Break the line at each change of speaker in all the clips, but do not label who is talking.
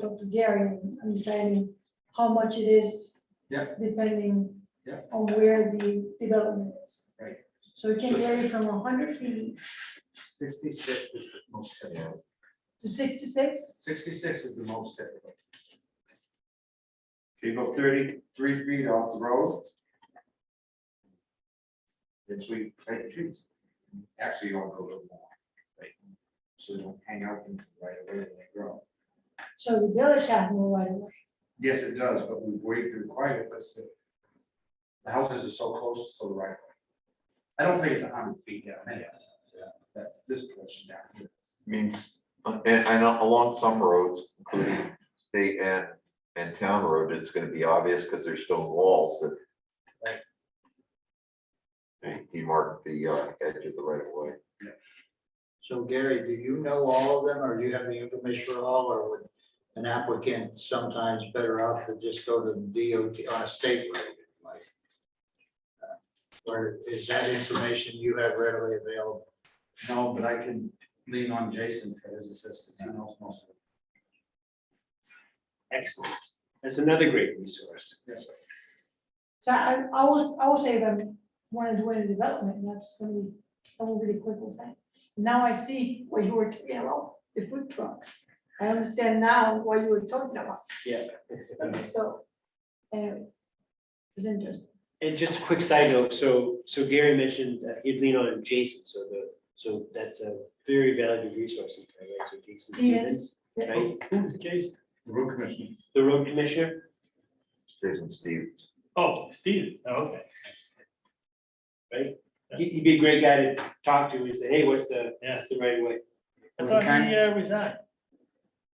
Dr. Gary, and understanding how much it is.
Yeah.
Depending.
Yeah.
On where the development is.
Right.
So it can vary from hundred feet
Sixty-six is the most typical.
to sixty-six,
Sixty-six is the most typical.
If you go thirty-three feet off the road. It's we plant trees. Actually, you don't go a little more. right? So they don't hang out in the right away when they grow.
so the village has no right of way.
Yes, it does, but we wait to require it, but still. The houses are so close to the right. of way. I don't think it's a hundred feet down there. That this portion down here.
means, and, and along some roads, including state and, and town road, it's gonna be obvious, because there's stone walls that. They demark the uh, edge of the right of way.
So Gary, do you know all of them, or do you have the information for all, or would an applicant sometimes better off to just go to the DOT on a state road? like, uh, Or is that information you have readily available?
No, but I can lean on Jason for his assistance. He knows most of it.
Excellent. That's another great resource.
Yes.
So I, I was, I would say if I wanted to win a development, that's gonna be a really quick thing. Now I see what you were, talking about the food trucks. I understand now what you were talking about,
Yeah.
so. Anyway. It's interesting.
And just a quick side note, so, so Gary mentioned that he'd lean on Jason, so the, so that's a very valuable resource. in Conway, so Jason
Stevens. yeah.
Right, who's Jason?
The road commission
The road commissioner?
Jason Stevens.
Oh, Stevens, oh, okay. Right, He- he'd be a great guy to talk to, and say, hey, what's the, what's the right way?
I
Well, he
thought
kind-
he uh, resigned.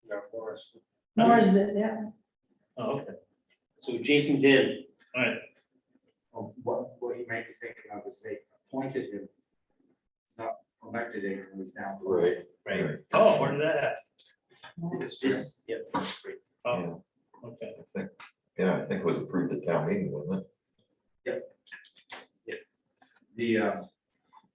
Yeah, of course.
Nor is it, yeah.
Oh, okay,
So Jason's in,
all right.
Well, What, what you might be thinking of is they appointed him. Not elected him, when he's down.
Right.
Right. Oh, where did that at?
It's just,
this, yeah,
Oh,
Yeah,
okay.
I think, yeah, I think it was approved at town meeting, wasn't it?
the, uh,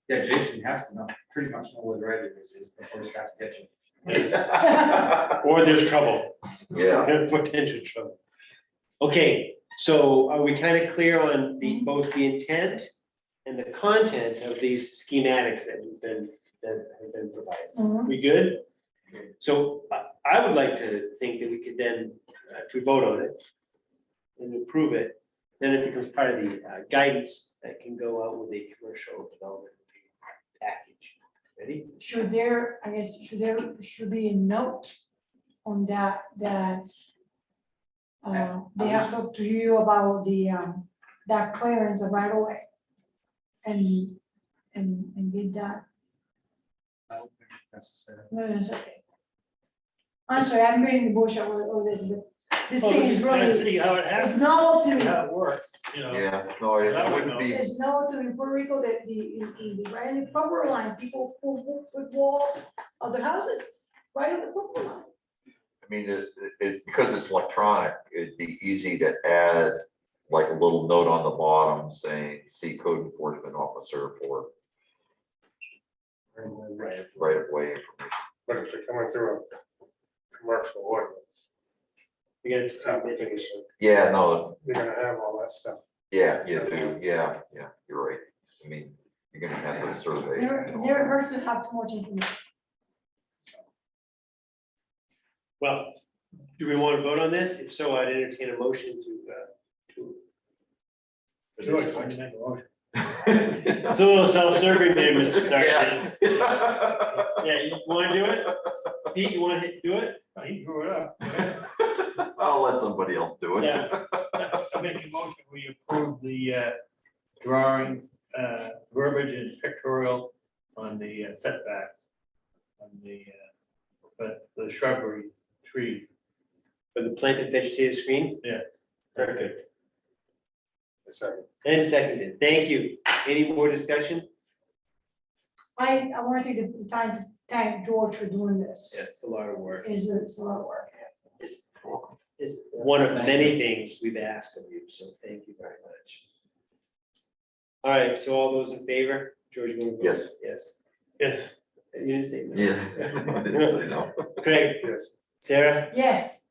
yeah, Jason has to know, pretty much know where the right of this is before he starts catching.
or there's trouble.
Yeah,
Potential trouble. Okay, so are we kind of clear on the, both the intent and the content of these schematics that have been, that have been provided?
Mhm.
We good? So I, I would like to think that we could then, uh, if we vote on it and approve it, then it becomes part of the uh, guidance that can go out with a commercial development package. Ready?
Should there, I guess, should there, should be a note on that, that uh, they have talked to you about the, um, that clearance of right away. And, and, and did that,
I don't think it's Necessary.
no, no, it's okay. I'm sorry, I'm beating the bush over, over this, but Oh, this
Well,
thing
we
is
just gotta
really,
See how it
it's
happens,
novel to me.
how it works, you know.
yeah, no, it it wouldn't be,
There's no to in Puerto Rico that the, in, in the, right in the proper line, people put, put walls of their houses right on the proper line.
I mean, it, it, because it's electronic, it'd be easy to add like a little note on the bottom saying, see code enforcement officer for
Right.
right of way information.
But if they're coming through a commercial ordinance,
We got to
it's not
decide.
making it,
Yeah, no,
you're gonna have all that stuff.
yeah, you do, yeah, yeah, you're right. I mean, you're gonna have to survey.
Never,
and all
never
that.
hurts to have too much information.
Well, do we want to vote on this? If so, I'd entertain a motion to, uh, to.
Do it, I can make a motion.
It's a little self-serving there, Mr. Sargent.
Yeah.
Yeah, you want to do it? Pete, you want to do it?
He grew it up.
I'll let somebody else do it.
Yeah. I make a motion, we approve the uh, drawing, uh, verbiage and pictorial on the uh, setbacks. On the, uh, but the shrubbery tree.
For the planted vegetative screen?
Yeah.
Perfect.
It's-
And seconded. Thank you. Any more discussion?
I, I want to take the time to thank George for doing this.
It's a lot of work.
It's, it's a lot of work.
It's, it's one of many things we've asked of you, so thank you very much. All right, so all those in favor? George, you want to? vote?
Yes.
Yes.
Yes.
You didn't say no.
Yeah. I didn't say no.
Craig?
Yes.
Sarah?
Yes,